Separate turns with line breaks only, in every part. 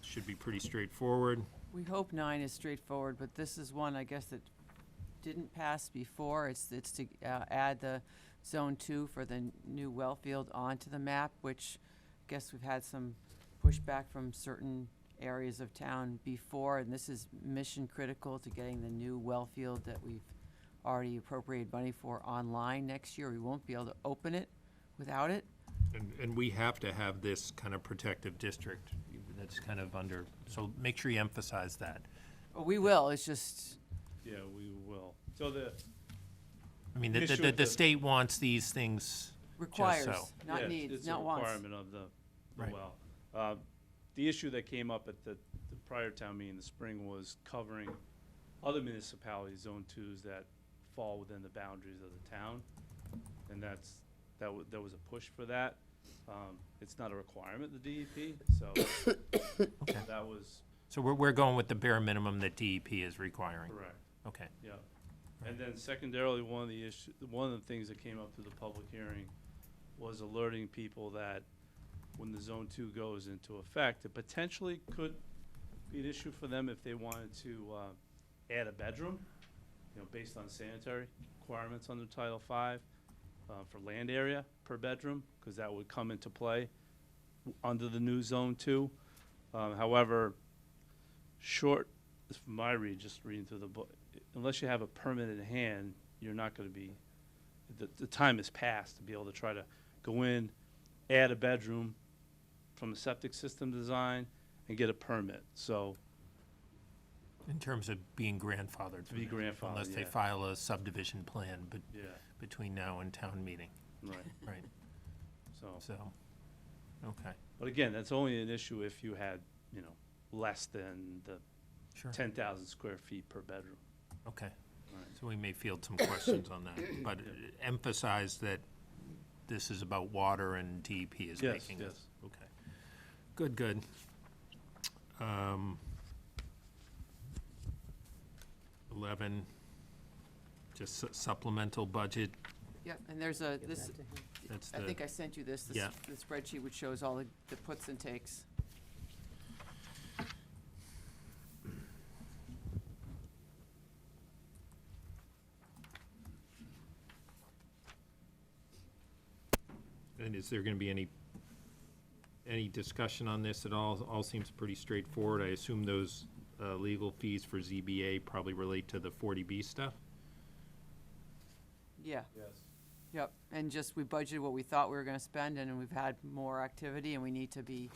should be pretty straightforward.
We hope nine is straightforward, but this is one, I guess, that didn't pass before. It's, it's to uh, add the zone two for the n- new well field onto the map, which I guess we've had some pushback from certain areas of town before, and this is mission critical to getting the new well field that we've already appropriated money for online next year. We won't be able to open it without it.
And, and we have to have this kind of protective district that's kind of under, so make sure you emphasize that.
But we will, it's just,
Yeah, we will. So the,
I mean, the,
Issue
the,
with
the
the-
state wants these things,
requires,
so.
yeah,
not
it's
needs,
a
not wants.
requirement of the, the
Right.
well. Uh, The issue that came up at the, the prior town meeting in the spring was covering other municipalities, zone twos that fall within the boundaries of the town. And that's, that was, there was a push for that. Um, It's not a requirement, the DEP, so that was
so we're, we're going with the bare minimum that DEP is requiring.
correct.
Okay.
Yeah, and then secondarily, one of the issue, one of the things that came up through the public hearing was alerting people that when the zone two goes into effect, it potentially could be an issue for them if they wanted to, uh, add a bedroom, you know, based on sanitary requirements under Title Five, uh, for land area per bedroom, cause that would come into play w- under the new zone two. Um, however, short, from my read, just reading through the book, unless you have a permit in hand, you're not gonna be, the, the time has passed to be able to try to go in, add a bedroom from a septic system design and get a permit, so,
In terms of being grandfathered.
To be
for that, Unless
grandfathered,
they
yeah.
file a subdivision plan be-
yeah,
between now and town meeting,
right,
right,
so.
so, okay,
But again, that's only an issue if you had, you know, less than the
sure,
ten thousand square feet per bedroom.
okay.
Right.
So we may field some questions on that, but emphasize that this is about water and DEP is
Yes,
making this.
yes.
Okay. Good, good. Um, Eleven, just su- supplemental budget,
Yeah, and there's a, this,
that's the.
I think I sent you this, the
Yeah.
s- the spreadsheet which shows all the the puts and takes.
And is there going to be any, any discussion on this at all? All seems pretty straightforward. I assume those uh, legal fees for ZBA probably relate to the 40B stuff?
Yeah,
Yes.
yep, and just, we budgeted what we thought we were gonna spend, and we've had more activity, and we need to be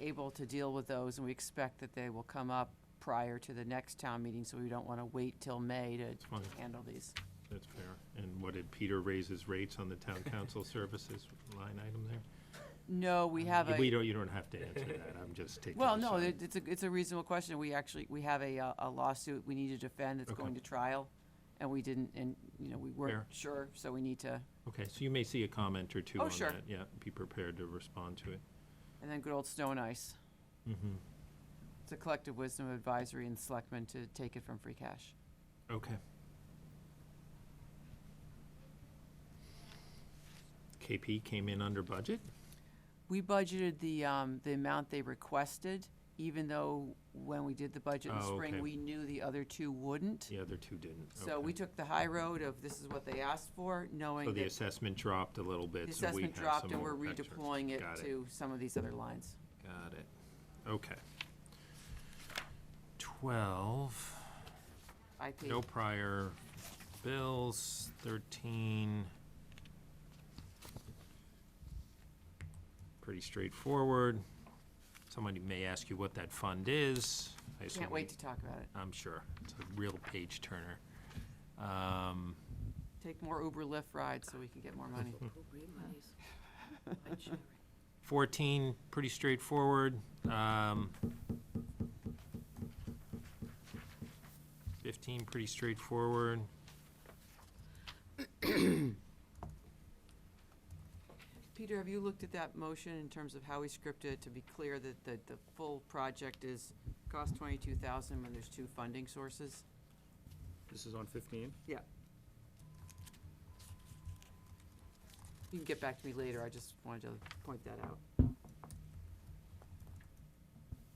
able to deal with those, and we expect that they will come up prior to the next town meeting, so we don't wanna wait till May to
fine.
handle these.
That's fair. And what did Peter raise his rates on the town council services line item there?
No, we have a.
Uh, We don't, you don't have to answer that. I'm just taking.
Well,
a
no,
side.
it- it's a, it's a reasonable question. We actually, we have a, uh, a lawsuit we need to defend that's
Okay.
going to trial, and we didn't, and, you know, we weren't
Fair.
sure, so we need to,
Okay, so you may see a comment or two
Oh,
on that.
sure.
Yeah, be prepared to respond to it.
and then good old Snow and Ice.
Mhm.
It's a collective wisdom advisory and selectmen to take it from free cash.
Okay. KP came in under budget?
We budgeted the, um, the amount they requested, even though when we did the budget in the
Oh, okay.
spring, we knew the other two wouldn't.
The other two didn't.
So we
Okay.
took the high road of this is what they asked for, knowing
So
that
the assessment dropped a little
the
bit, so we
assessment
have some
dropped and we're
more extra.
redeploying it
Got
to some of these other lines.
Got it. Okay. Twelve,
IP.
no prior bills, thirteen. Pretty straightforward. Somebody may ask you what that fund is. I assume
Can't wait to talk about it.
I'm sure. It's a real page turner. Um,
Take more Uber Lyft rides so we can get more money.
Fourteen, pretty straightforward. Um, Fifteen, pretty straightforward.
Peter, have you looked at that motion in terms of how we scripted it to be clear that the, the full project is cost twenty-two thousand when there's two funding sources?
This is on fifteen?
Yeah. You can get back to me later, I just wanted to point that out.